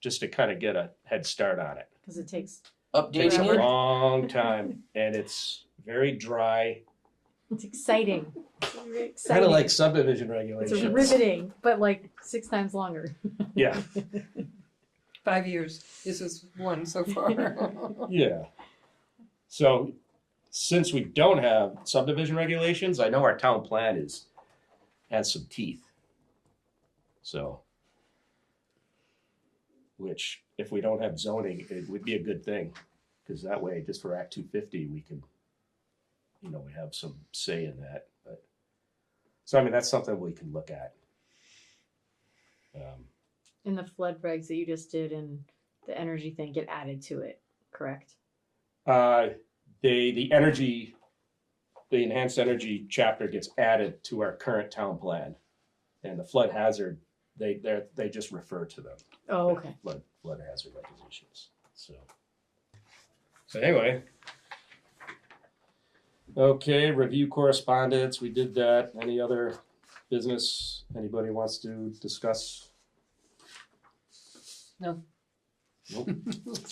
just to kind of get a head start on it. because it takes Takes a Really? Updating it, long time and it's very dry, it's exciting. kind Exciting. of like subdivision it's regulations. riveting, but like six times longer. Yeah, five years, this is one so far. yeah. So since we don't have subdivision regulations, I know our town plan is, has some teeth. So. Which, if we don't have zoning, it would be a good thing, because that way, just for Act two fifty, we can, you know, we have some say in that, but. So I mean, that's something we can look at. Um, And the flood regs that you just did and the energy thing get added to it, correct? Uh, they, the energy, the enhanced energy chapter gets added to our current town plan. And the flood hazard, they, they're, they just refer to them. Oh, okay. Flood, flood hazard regulations, so. So anyway. Okay, review correspondence, we did that. Any other business anybody wants to discuss? No. Nope.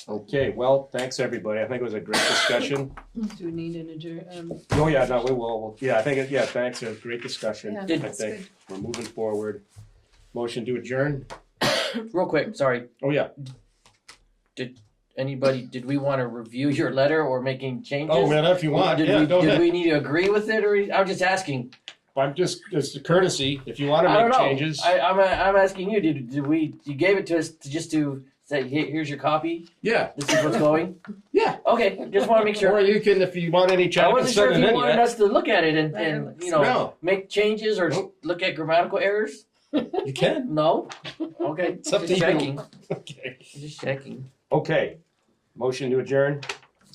Okay, well, thanks, everybody. I think it was a great discussion. Do we need an adjourn, um, Oh, yeah, no, we will, we'll- yeah, I think, it- yeah, thanks, it was a great discussion, yeah, I that's think, good. we're moving forward. Motion to adjourn, Real quick, sorry, oh, yeah, anybody, did we want to review your letter or making changes? oh, man, if you want, Did yeah, we, go did ahead. we need to agree with it or, I'm just asking, I'm just, it's a courtesy, if you wanna I don't make know, changes. I, I'm, I'm asking you, did, did we, you gave it to us to just to say, "Here- here's your copy, Yeah, this is what's going? Yeah. Okay, just want to make or sure, you can, if you want any I changes, wasn't sure send it if you in, wanted yeah. us to look at it and, Letter and, looks- you know, No, make changes or Nope. look at grammatical errors? you can, No? Okay, It's up to just you. checking, okay. just checking. Okay, motion to adjourn,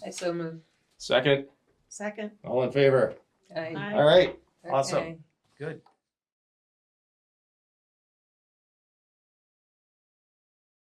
I so moved, second, Second. all in favor, I. all right, Awesome. okay. good.